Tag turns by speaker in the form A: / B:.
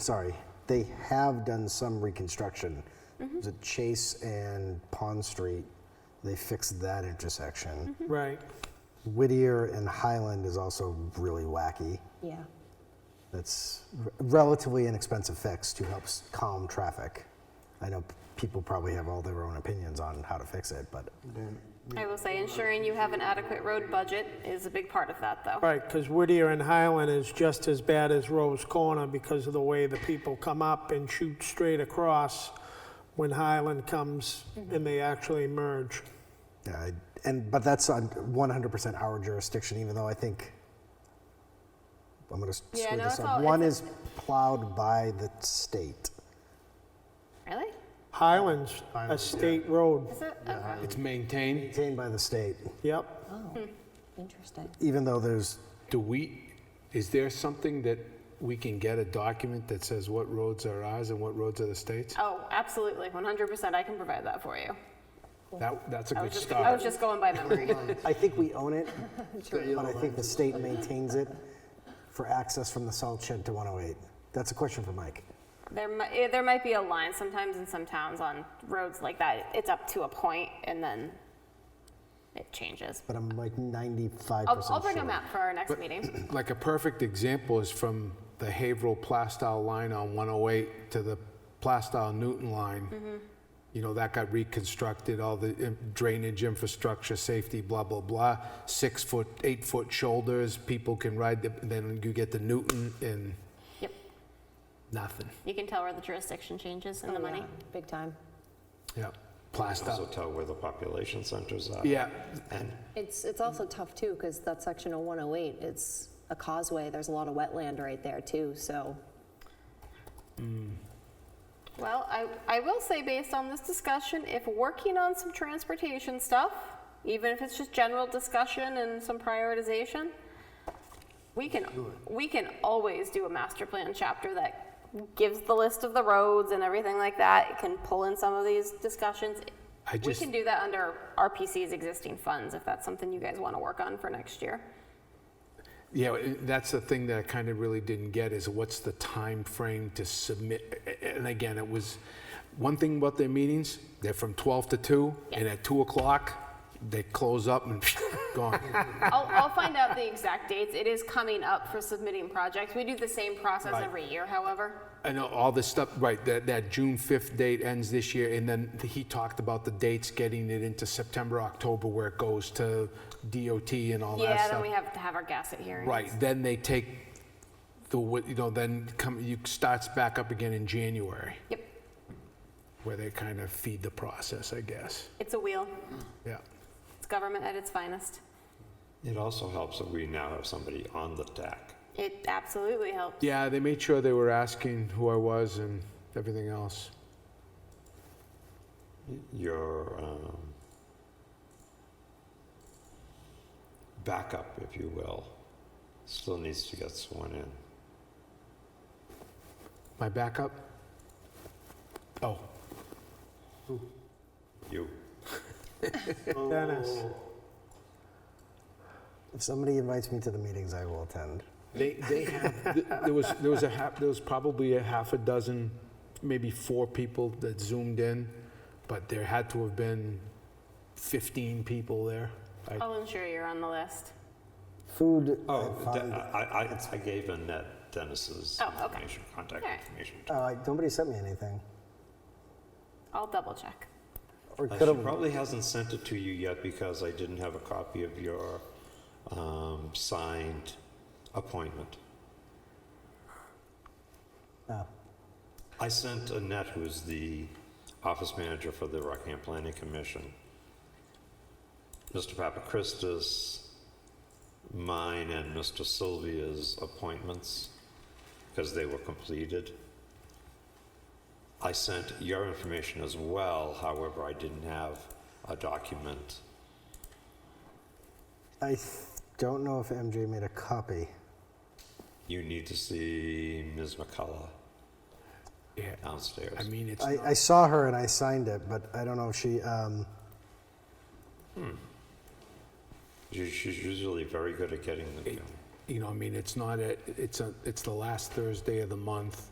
A: sorry, they have done some reconstruction.
B: Mm-hmm.
A: Was it Chase and Pond Street? They fixed that intersection.
B: Mm-hmm.
C: Right.
A: Whittier and Highland is also really wacky.
D: Yeah.
A: That's r- relatively inexpensive fix to help s- calm traffic. I know p- people probably have all their own opinions on how to fix it, but
B: I will say ensuring you have an adequate road budget is a big part of that, though.
C: Right, because Whittier and Highland is just as bad as Rose Corner because of the way the people come up and shoot straight across when Highland comes and they actually merge.
A: yeah, I- and but that's on 100% our jurisdiction. Even though I think I'm going to screw
B: Yeah, no,
A: this
B: it's
A: up.
B: all-
A: One
B: it's-
A: is plowed by the state.
B: Really?
C: Highland's a state road.
B: Is it? Okay.
E: It's maintained.
A: maintained by the state,
C: Yep.
D: Interesting.
A: even though there's,
E: Do we, is there something that we can get a document that says what roads are ours and what roads are the state's?
B: Oh, absolutely, 100%. I can provide that for you.
E: That, that's a
B: Oh. I
E: good
B: was just, I
E: start.
B: was just going by memory.
A: I think we own it, but I think the state maintains it for access from the salt shed to 108. That's a question for Mike.
B: there, mi- eh, there might be a line sometimes in some towns on roads like that. It's up to a point and then it changes.
A: But I'm like 95%
B: I'll, I'll bring
A: sure.
B: a map for our next meeting.
E: Like a perfect example is from the Haverhill Plastow line on 108 to the Plastow Newton
B: Mm-hmm.
E: line. You know, that got reconstructed, all the eh, drainage infrastructure, safety, blah, blah, blah. Six foot, eight foot shoulders, people can ride, the- then you get the Newton and
B: yep.
E: nothing.
B: You can tell where the jurisdiction changes and the
D: Oh,
B: money.
D: Big time.
E: Yeah,
F: Also
E: Plastow.
F: tell where the population centers are.
E: Yeah,
F: And
D: It's, it's also tough too, because that section of 108, it's a causeway. There's a lot of wetland right there too, so.
B: Well, I, I will say, based on this discussion, if working on some transportation stuff, even if it's just general discussion and some prioritization, we can, we can always do a master plan chapter that gives the list of the roads and everything like that. It can pull in some of these discussions.
E: I
B: We
E: just-
B: can do that under RPC's existing funds, if that's something you guys want to work on for next year.
E: yeah, i- that's the thing that I kind of really didn't get is what's the time frame to submit? A- a- And again, it was, one thing about their meetings, they're from 12 to 2, and at 2 o'clock, they close up and gone.
B: I'll, I'll find out the exact dates. It is coming up for submitting projects. We do the same process
E: Right.
B: every year, however.
E: I know all this stuff, right, that, that June 5th date ends this year, and then he talked about the dates, getting it into September, October, where it goes to DOT and all that
B: Yeah,
E: stuff.
B: then we have to have our gasset hearing.
E: Right, then they take the, wi- you know, then come, you starts back up again in January,
B: Yep,
E: where they kind of feed the process, I guess.
B: it's a wheel.
E: Yeah.
B: It's government at its finest.
F: it also helps that we now have somebody on the deck.
B: It absolutely helps.
E: Yeah, they made sure they were asking who I was and everything else.
F: Your um, backup, if you will, still needs to get sworn in.
E: My backup? Oh,
F: You,
C: Dennis.
A: If somebody invites me to the meetings, I will attend.
E: they, they have, th- there was, there was a half, there was probably a half a dozen, maybe four people that zoomed in, but there had to have been 15 people there. I-
B: I'll ensure you're on the list.
A: Food, uh,
F: oh,
A: I
F: De-
A: find,
F: I, I, I gave Annette Dennis's
B: Oh, okay.
F: information, contact
B: All right.
F: information.
A: oh, I- nobody sent me anything.
B: I'll double check.
A: Or
F: Uh,
A: could
F: She
A: have,
F: probably hasn't sent it to you yet because I didn't have a copy of your um, signed appointment.
A: Oh.
F: I sent Annette, who's the office manager for the Rockingham Planning Commission, Mr. Papakristis, mine and Mr. Sylvia's appointments because they were completed. I sent your information as well, however, I didn't have a document.
A: I th- don't know if MJ made a copy.
F: You need to see Ms. McCullough
E: Yeah,
F: downstairs.
E: I mean, it's,
A: I, I saw her and I signed it, but I don't know if she, um,
F: She- She's usually very good at getting them. you know.
E: you know, I mean, it's not a, it's a, it's the last Thursday of the month.